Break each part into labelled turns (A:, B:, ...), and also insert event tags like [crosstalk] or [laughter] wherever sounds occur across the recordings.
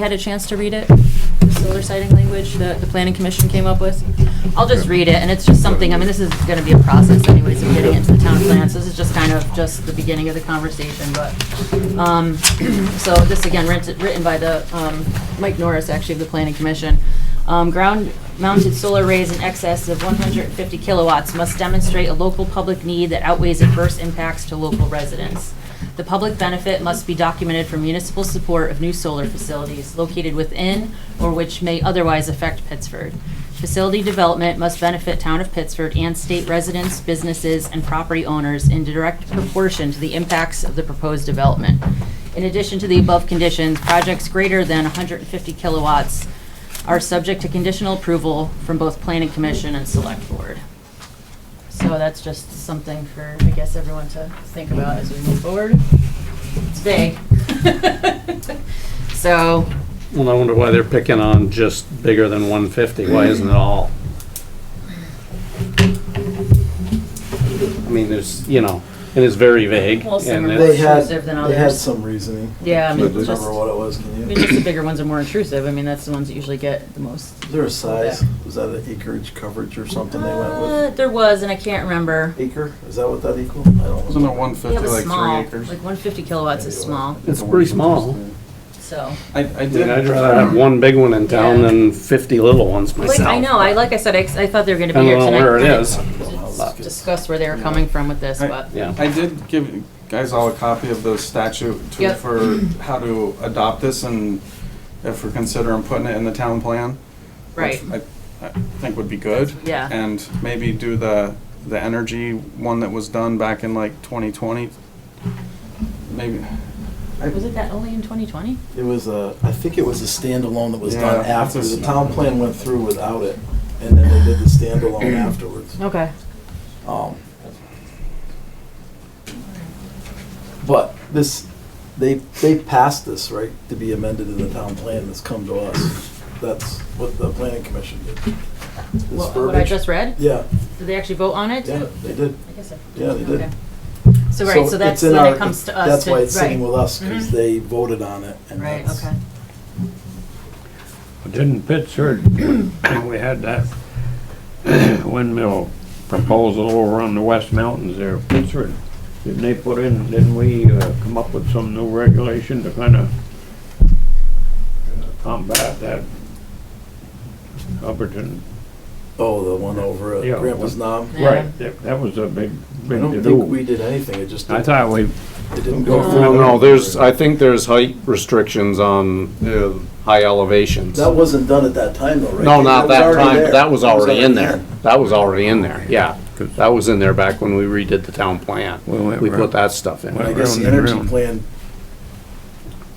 A: had a chance to read it, the solar sighting language that the planning commission came up with. I'll just read it, and it's just something, I mean, this is gonna be a process anyways of getting into the town plan, so this is just kind of just the beginning of the conversation, but, um, [clears throat] so this again, writ- written by the, um, Mike Norris, actually, of the planning commission. Um, ground-mounted solar arrays in excess of one hundred and fifty kilowatts must demonstrate a local public need that outweighs adverse impacts to local residents. The public benefit must be documented for municipal support of new solar facilities located within or which may otherwise affect Pittsford. Facility development must benefit town of Pittsford and state residents, businesses, and property owners in direct proportion to the impacts of the proposed development. In addition to the above conditions, projects greater than 150 kilowatts are subject to conditional approval from both planning commission and select board. So that's just something for, I guess, everyone to think about as we move forward. It's vague. [laughs] So,
B: Well, I wonder why they're picking on just bigger than 150. Why isn't it all? I mean, there's, you know, and it's very vague.
A: Well, some
B: and
A: are-
B: it's-
A: Less
C: They had,
A: intrusive than
C: they had
A: others.
C: some reasoning.
A: yeah, I
C: Can't
A: mean, just,
C: remember
A: I
C: what it was, can
A: mean,
C: you?
A: just the bigger ones are more intrusive. I mean, that's the ones that usually get the most.
C: Is there a size? Was that an acreage coverage or something they went
A: Uh,
C: with?
A: There was, and I can't remember.
C: Acre? Is that what that equal? I don't
D: Wasn't it
C: know.
D: one
A: Yeah, it
D: fifty,
A: was
D: like three
A: small,
D: acres?
A: like one fifty kilowatts is small,
B: It's pretty small.
A: so.
D: I, I
B: I mean,
D: did.
B: I'd rather have one big one in town
A: Yeah.
B: than 50 little ones myself.
A: Like, I know, I, like I said, I, I thought they were gonna be here
B: Depending on
A: tonight.
B: where it
A: but I
B: is.
A: didn't Discuss where they were coming from with this,
D: I-
A: but,
B: Yeah.
D: I did give you guys all a copy of the statute to,
A: Yep.
D: for how to adopt this and if we're considering putting it in the town plan.
A: right,
D: which I, I think would be good.
A: Yeah.
D: And maybe do the, the energy one that was done back in like twenty twenty. Maybe,
A: was it that only in twenty twenty?
C: It was a, I think it was a standalone that was
D: Yeah,
C: done
D: that's
C: after.
D: a
C: The
D: s-
C: town plan went through without it, and then they did the
D: [clears throat]
C: standalone afterwards.
A: Okay.
C: Um, But this, they, they passed this, right, to be amended in the town plan that's come to us. That's what the planning commission did. This
A: What what I
C: verbiage.
A: just read?
C: Yeah,
A: Did they actually vote on it?
C: yeah,
A: too?
C: they did.
A: I guess so.
C: Yeah, they did.
A: Okay. So, right, so that's,
C: it's in
A: then
C: our-
A: it comes to us.
C: That's
A: to-
C: why it's sitting
A: right.
C: with us, because
A: Mhm.
C: they voted on it. and
A: Right,
C: that's-
A: okay.
E: Didn't Pittsburgh, [clears throat] when we had that [clears throat] windmill proposal over on the West Mountains there, Pittsburgh, didn't they put in, didn't we uh, come up with some new regulation to kind of combat that Hubbardton?
C: Oh, the one over
E: Yeah.
C: at Grandpa's Knob.
A: Yeah.
E: Right, that that was a big,
C: I
E: big
C: don't think
E: to-do.
C: we did anything, it just
E: I
C: didn't,
E: thought we,
C: it didn't go through.
B: No, no, there's, I think there's height restrictions on uh, high elevations.
C: That wasn't done at that time though, right?
B: No, not
C: was
B: that
C: already
B: time,
C: there.
B: but that was already in there. That was already in there, yeah. That was in there back when we redid the town plan.
E: We went
B: We put
E: round-
B: that stuff in.
E: went
C: I guess
E: round
C: the
E: and
C: energy
E: round.
C: plan,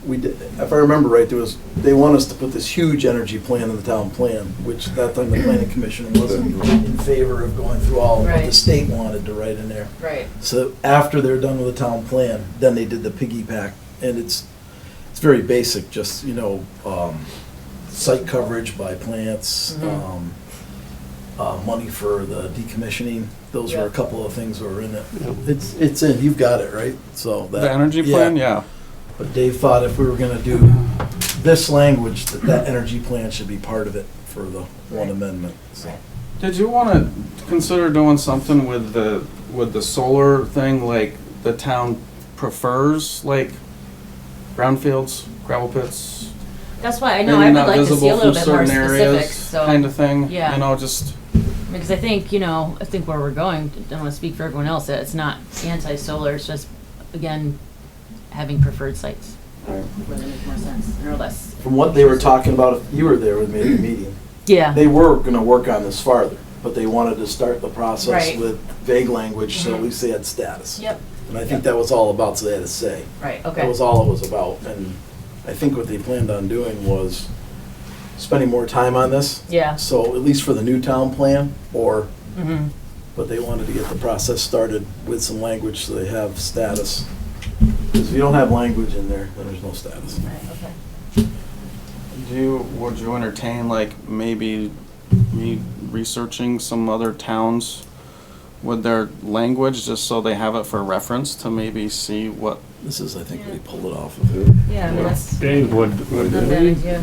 C: we did, if I remember right, there was, they want us to put this huge energy plan in the town plan, which that time the planning commission wasn't in favor of going through all of what the
A: Right.
C: state wanted to write in there.
A: Right,
C: So after they're done with the town plan, then they did the piggyback, and it's, it's very basic, just, you know, um, site coverage by plants,
A: Mhm.
C: um, uh, money for the decommissioning, those were a
A: Yep.
C: couple of things that were in it. It's, it's in, you've got it, right? So that.
D: the energy plan, yeah.
C: But Dave thought if we were gonna do this language, that that energy plan should be part of it for the one amendment, so.
D: Did you want to consider doing something with the, with the solar thing, like the town prefers, like brownfields, gravel pits?
A: that's why, I know, I
D: maybe
A: would
D: not
A: like to see
D: visible
A: a little
D: from
A: bit more
D: certain areas,
A: specifics, so.
D: Kind of thing, you
A: Yeah.
D: know, just,
A: Because I think, you know, I think where we're going, I don't wanna speak for everyone else, that it's not anti-solar, it's just, again, having preferred sites.
D: Right.
A: Where they make more sense, or less.
C: From what they were talking about, if you were there with me at the meeting,
A: Yeah,
C: they were gonna work on this farther, but they wanted to start the process
A: Right.
C: with vague language, so at
A: Mhm.
C: least they had status.
A: yep,
C: And I think that was all about, so they had a say.
A: right,
C: That
A: okay,
C: was all it was about, and I think what they planned on doing was spending more time on this.
A: yeah,
C: So at least for the new town plan, or
A: mhm,
C: but they wanted to get the process started with some language so they have status. Because if you don't have language in there, then there's no status.
A: right, okay.
D: do you, would you entertain, like, maybe me researching some other towns with their language, just so they have it for reference to maybe see what
C: This is, I think, we pulled it off of.
A: Yeah, I mean, that's
E: Dave, would, would
A: not a bad idea.